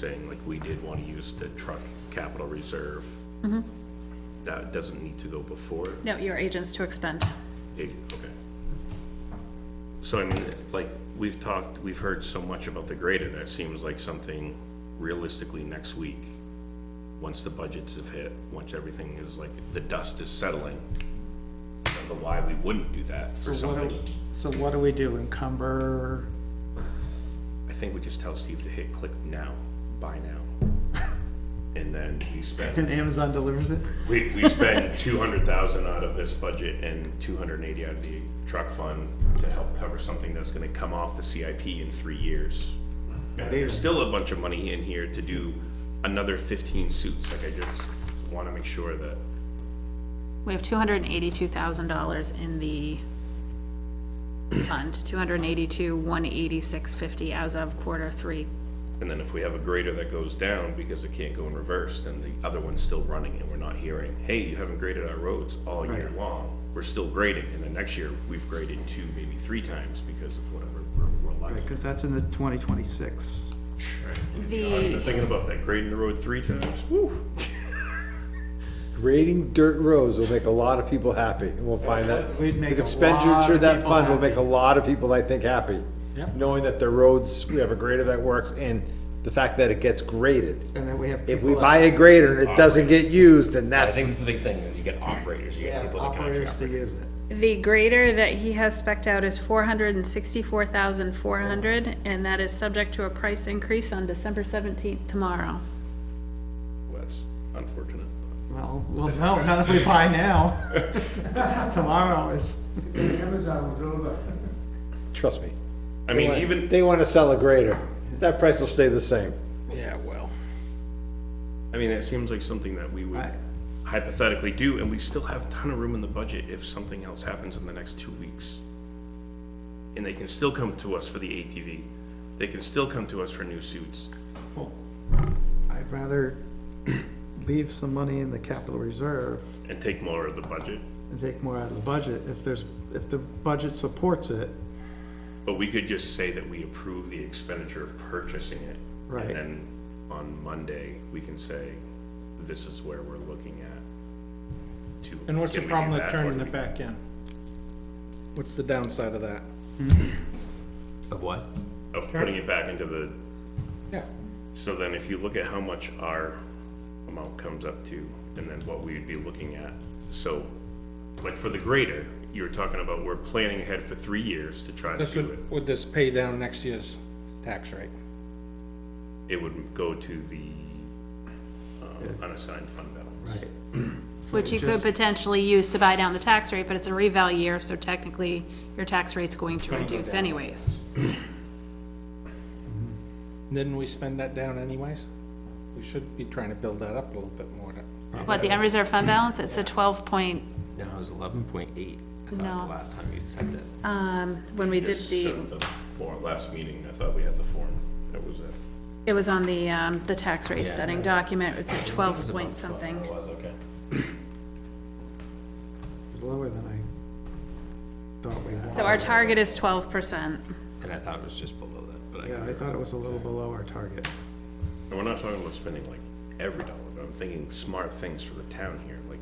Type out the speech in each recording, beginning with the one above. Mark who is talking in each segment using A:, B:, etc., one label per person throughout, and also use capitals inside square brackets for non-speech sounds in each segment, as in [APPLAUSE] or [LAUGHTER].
A: saying like we did want to use the truck capital reserve. That doesn't need to go before, it,
B: No, your agents to expend.
A: okay. So I mean, like, we've talked, we've heard so much about the grader, that seems like something realistically next week. Once the budgets have hit, once everything is like, the dust is settling. I don't know why we wouldn't do that for
C: So what
A: something.
C: do, so what do we do, encumber?
A: I think we just tell Steve to hit click now, buy
C: [LAUGHS]
A: now. And then we spend,
C: And Amazon delivers it?
A: we, we spend [LAUGHS] two hundred thousand out of this budget and two hundred and eighty out of the truck fund to help cover something that's gonna come off the CIP in three years. And there's still a bunch of money in here to do another fifteen suits, like I just wanna make sure that,
B: We have two hundred and eighty-two thousand dollars in the fund, two hundred and eighty-two, one eighty-six fifty as of quarter three.
A: and then if we have a grader that goes down because it can't go in reverse, then the other one's still running and we're not hearing, hey, you haven't graded our roads all year
C: Right.
A: long. We're still grading, and then next year, we've graded two, maybe three times because of whatever, we're, we're lucky.
C: Because that's in the twenty twenty-six.
A: I've been
B: The,
A: thinking about that, grading the road three times, woo.
D: Grading dirt roads will make a lot of people happy, and we'll find that.
C: We'd make
D: the
C: a lot of
D: expenditure of that
C: people
D: fund will
C: happy.
D: make a lot of people, I think, happy.
C: Yep.
D: Knowing that the roads, we have a grader that works, and the fact that it gets graded.
C: And then we have
D: If
C: people
D: we
C: that-
D: buy a grader and it doesn't get used, then
E: I
D: that's,
E: think that's the big thing, is you get operators, you get
C: Yeah,
E: people that can actually
C: operators to
E: operate.
C: use it.
B: the grader that he has specked out is four hundred and sixty-four thousand, four hundred, and that is subject to a price increase on December seventeenth tomorrow.
A: That's unfortunate.
C: Well, well, no, not if we buy now.
E: [LAUGHS]
C: Tomorrow is. Amazon will deliver.
D: trust me.
A: I mean, even,
D: They wanna sell a grader, that price will stay the same.
A: I mean, it seems like something that we would
C: Right.
A: hypothetically do, and we still have a ton of room in the budget if something else happens in the next two weeks. And they can still come to us for the ATV, they can still come to us for new suits.
C: I'd rather leave some money in the capital reserve
A: and take more of the budget,
C: and take more out of the budget if there's, if the budget supports it.
A: but we could just say that we approve the expenditure of purchasing it.
C: Right.
A: And then on Monday, we can say, this is where we're looking at. to-
F: And what's the
A: can we do
F: problem with
A: that,
F: turning
A: or
F: it back in? What's the downside of that?
E: Of what?
A: Of putting it back into the,
F: Yeah.
A: so then if you look at how much our amount comes up to, and then what we'd be looking at, so, like for the grader, you were talking about, we're planning ahead for three years to try to
F: This
A: do it.
F: would, would this pay down next year's tax rate?
A: It would go to the um, unassigned fund balance. Right.
B: Which you could potentially use to buy down the tax rate, but it's a reval year, so technically your tax rate's going to reduce anyways.
F: Didn't we spend that down anyways? We should be trying to build that up a little bit more to.
B: But the unreserved fund balance, it's a twelve point,
E: No, it was eleven point eight, I thought,
B: No.
E: the last time you sent it.
B: um, when we did
A: Just
B: the,
A: showed the form, last meeting, I thought we had the form, that was it.
B: it was on the, um, the tax rate
E: Yeah.
B: setting document, it's at twelve point something.
E: was, okay.
C: It's lower than I thought we wanted.
B: So our target is twelve percent.
E: And I thought it was just below that, but I.
C: Yeah, I thought it was a little below our target.
A: And we're not talking about spending like every dollar, but I'm thinking smart things for the town here, like,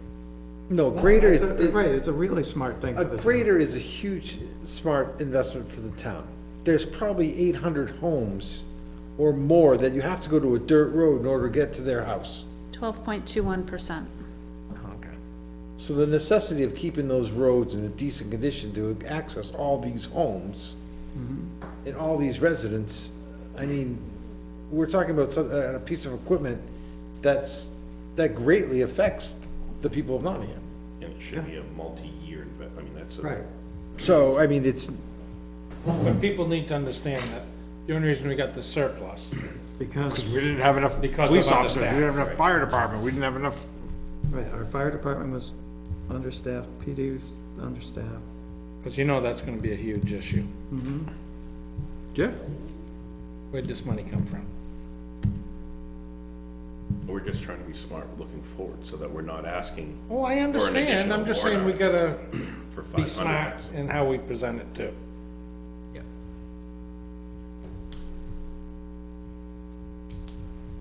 D: No, grader,
C: It's a- Right, it's a really smart thing for
D: A
C: the town.
D: grader is a huge, smart investment for the town. There's probably eight hundred homes or more that you have to go to a dirt road in order to get to their house.
B: Twelve point two one percent.
E: Oh, Okay.
D: So the necessity of keeping those roads in a decent condition to access all these homes and all these residents, I mean, we're talking about some, uh, a a piece of equipment that's, that greatly affects the people of Nottingham.
A: and it should be a multi-year, inve- I mean, that's a.
C: Right.
D: So, I mean, it's,
F: But people need to understand that the only reason we got the surplus,
C: Because,
G: We didn't have enough
F: Because
G: police
F: of
G: officers, we didn't have
F: understaffed,
G: enough fire department, we didn't have enough,
C: right, our fire department was understaffed, PD was understaffed.
F: because you know that's gonna be a huge issue.
G: yeah,
F: Where'd this money come from?
A: We're just trying to be smart looking forward, so that we're not asking
F: Oh, I
A: For an
F: understand,
A: additional
F: I'm just saying we
A: warrant
F: gotta
A: for
F: be
A: five
F: smart
A: hundred.
F: in how we present it too.